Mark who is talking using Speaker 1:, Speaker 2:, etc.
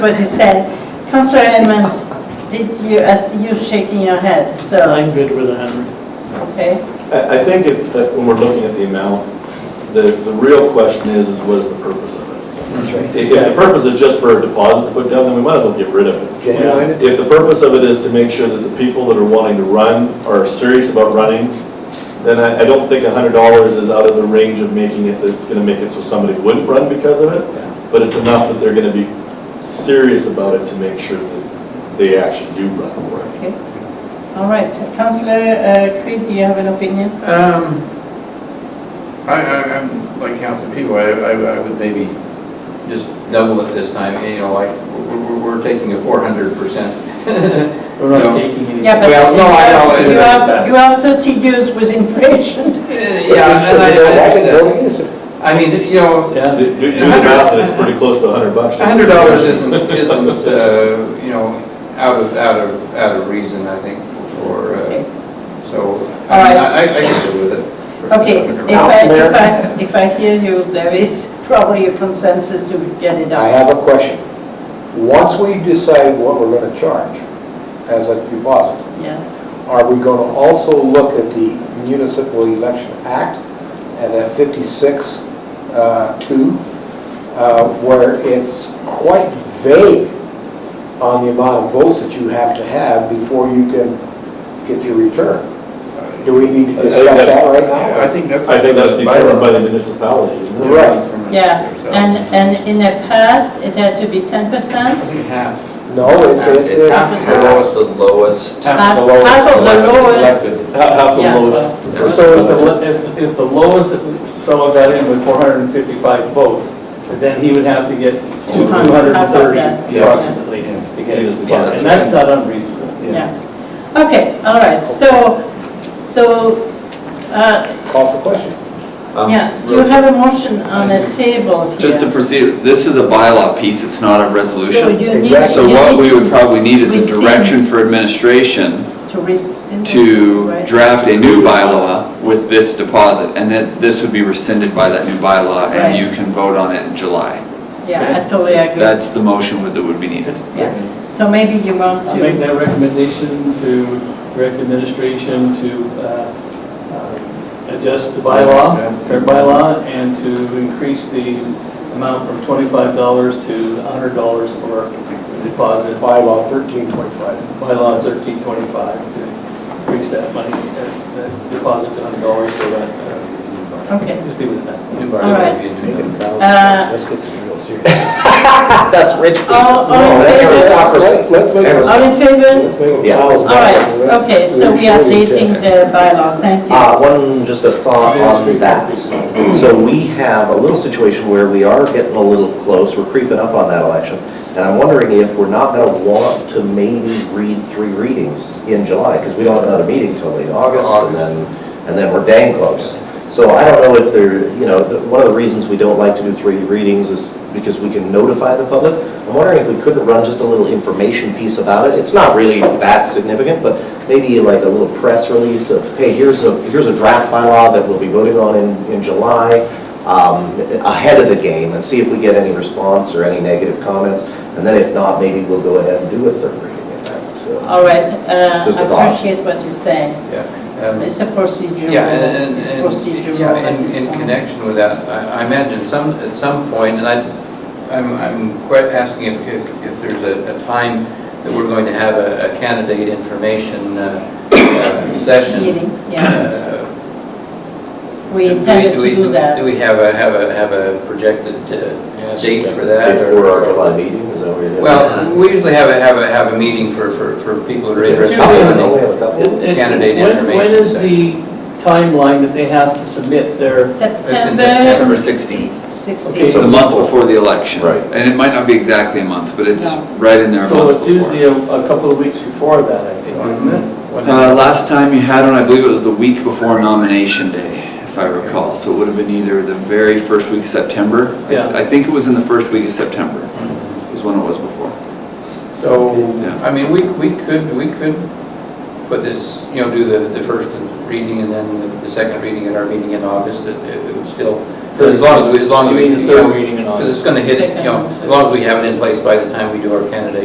Speaker 1: what he said. Counselor Edmonds, did you, as you shaking your head, so,
Speaker 2: I'm good with a hundred.
Speaker 1: okay?
Speaker 3: I, I think if, that when we're looking at the amount, the, the real question is, is what is the purpose of it? If- If the purpose is just for a deposit to put down, then we might as well get rid of it.
Speaker 4: Genuine.
Speaker 3: If the purpose of it is to make sure that the people that are wanting to run are serious about running, then I, I don't think a hundred dollars is out of the range of making it, that's gonna make it so somebody wouldn't run because of it. But it's enough that they're gonna be serious about it to make sure that they actually do run for it.
Speaker 1: Okay. All right, Counselor uh, Creed, do you have an opinion?
Speaker 5: Um, I, I, I'm like Council people, I, I I would maybe just double it this time, you know, like, we're, we're- we're taking a four hundred percent.
Speaker 2: We're not taking any.
Speaker 1: Yeah, but
Speaker 5: Well, no, I know.
Speaker 1: You have, you have 30 years with inflation.
Speaker 5: Yeah, and I- I, I mean, you know,
Speaker 2: Yeah.
Speaker 3: Do, do the math, and it's pretty close to a hundred bucks.
Speaker 5: a hundred dollars isn't, isn't, uh, you know, out of, out of, out of reason, I think, for,
Speaker 1: Okay.
Speaker 5: uh, so,
Speaker 1: All
Speaker 5: I,
Speaker 1: right.
Speaker 5: mean, I, I can deal with it.
Speaker 1: Okay, if I, if I, if I hear you, there is probably a consensus to get it
Speaker 4: I
Speaker 1: up.
Speaker 4: have a question. Once we decide what we're going to charge as a deposit,
Speaker 1: Yes,
Speaker 4: are we going to also look at the Municipal Election Act and that 56, uh, 2, uh, where it's quite vague on the amount of votes that you have to have before you can get your return? Do we need
Speaker 3: I think
Speaker 4: to discuss that
Speaker 3: that's-
Speaker 4: right now?
Speaker 5: I think that's.
Speaker 3: I think that's determined by the municipality, isn't it?
Speaker 4: Right.
Speaker 1: yeah, and, and in the past, it had to be 10%.
Speaker 5: half.
Speaker 4: No, it's, it's,
Speaker 1: Half the
Speaker 6: lowest, the lowest.
Speaker 1: Half the lowest. Half of the lowest.
Speaker 3: Half
Speaker 1: Yeah.
Speaker 2: So if the, lo- if, if the lowest fellow got in with four hundred and fifty-five votes, then he would have to get two
Speaker 1: Two times
Speaker 2: hundred
Speaker 1: half
Speaker 2: and
Speaker 1: of
Speaker 2: thirty
Speaker 1: that.
Speaker 5: Yeah.
Speaker 2: approximately to get his deposit, and that's not unreasonable.
Speaker 1: Yeah, okay, all right, so, so, uh,
Speaker 4: call for question.
Speaker 1: yeah, you have a motion on the table here.
Speaker 6: Um, Just to proceed, this is a bylaw piece, it's not a
Speaker 1: So
Speaker 6: resolution.
Speaker 1: you need,
Speaker 6: So
Speaker 1: you
Speaker 6: what
Speaker 1: need
Speaker 6: we would probably need is a
Speaker 1: Rescind.
Speaker 6: direction for administration
Speaker 1: to rescind.
Speaker 6: to
Speaker 1: right?
Speaker 6: draft a new bylaw with this deposit, and then this would be rescinded by that new bylaw,
Speaker 1: Right.
Speaker 6: and you can vote on it in July.
Speaker 1: Yeah, I totally agree.
Speaker 6: That's the motion would- that would be needed.
Speaker 1: Yeah, so maybe you want
Speaker 2: I'll make
Speaker 1: to,
Speaker 2: that recommendation to direct administration to, uh, uh, adjust the bylaw, current bylaw, and to increase the amount from twenty-five dollars to hundred dollars for deposit.
Speaker 4: Bylaw 1325.
Speaker 2: bylaw thirteen twenty-five to increase that money, uh, that deposit to hundred dollars so that, uh,
Speaker 1: okay.
Speaker 2: just leave it at that.
Speaker 1: All right. Uh,
Speaker 4: Let's get some real serious. That's rich
Speaker 1: All, all in favor?
Speaker 4: Let's make it,
Speaker 1: All in favor?
Speaker 4: let's make it a
Speaker 7: Yeah.
Speaker 4: thousand.
Speaker 1: All right, okay, so we are dating the bylaw, thank you.
Speaker 7: Uh, one, just a thought on that. So we have a little situation where we are getting a little close, we're creeping up on that election, and I'm wondering if we're not gonna want to maybe read three readings in July, because we don't have another meeting till late August, and then, and then we're dang close. So I don't know if there, you know, the- one of the reasons we don't like to do three readings is because we can notify the public. I'm wondering if we couldn't run just a little information piece about it. It's not really that significant, but maybe like a little press release of, hey, here's a, here's a draft bylaw that we'll be voting on in, in July, um, ahead of the game, and see if we get any response or any negative comments. And then if not, maybe we'll go ahead and do a third reading. in that, so.
Speaker 1: All right, uh,
Speaker 7: Just a
Speaker 1: I
Speaker 7: thought.
Speaker 1: appreciate what you're saying.
Speaker 5: Yeah. um,
Speaker 1: It's a procedural,
Speaker 5: Yeah, and,
Speaker 1: it's
Speaker 5: and- and,
Speaker 1: procedural
Speaker 5: yeah,
Speaker 1: at
Speaker 5: in,
Speaker 1: this
Speaker 5: in
Speaker 1: point.
Speaker 5: connection with that, I I imagine some, at some point, and I, I'm, I'm quite asking if, if, if there's a, a time that we're going to have a a candidate information uh, uh, session.
Speaker 1: Meeting, yeah,
Speaker 5: Uh,
Speaker 1: we
Speaker 5: do
Speaker 1: intended to
Speaker 5: we-
Speaker 1: do that.
Speaker 5: Do we have a, have a, have a projected uh, date for that? or-
Speaker 7: Before our July meeting, is that what you're doing?
Speaker 5: Well, we usually have a, have a, have a meeting for, for, for people who are
Speaker 7: There's
Speaker 5: interested.
Speaker 7: probably
Speaker 5: in
Speaker 7: only
Speaker 5: it.
Speaker 7: a couple.
Speaker 2: It- it-
Speaker 5: Candidate
Speaker 2: when- When
Speaker 5: information
Speaker 2: is the timeline that they have to submit their,
Speaker 1: September
Speaker 6: September 16th.
Speaker 1: 16th.
Speaker 6: It's the month before the election.
Speaker 7: Right.
Speaker 6: And it might not be exactly a month, but it's
Speaker 1: No.
Speaker 6: right in there a
Speaker 2: so
Speaker 6: month
Speaker 2: it's
Speaker 6: before.
Speaker 2: usually a, a couple of weeks before that, I think, isn't it?
Speaker 6: Uh, Last time you had one, I believe it was the week before nomination day, if I recall. So it would have been either the very first week of September. I-
Speaker 2: Yeah.
Speaker 6: I think it was in the first week of September, was when it was before.
Speaker 5: So,
Speaker 6: Yeah.
Speaker 5: I mean, we, we could, we could put this, you know, do the, the first reading and then the- the second reading at our meeting in August. It it would still As long as we, as long as
Speaker 2: You
Speaker 5: we.
Speaker 2: mean the third reading in August?
Speaker 5: Because it's going to hit, you know, as long as we have it in place by the time we do our candidate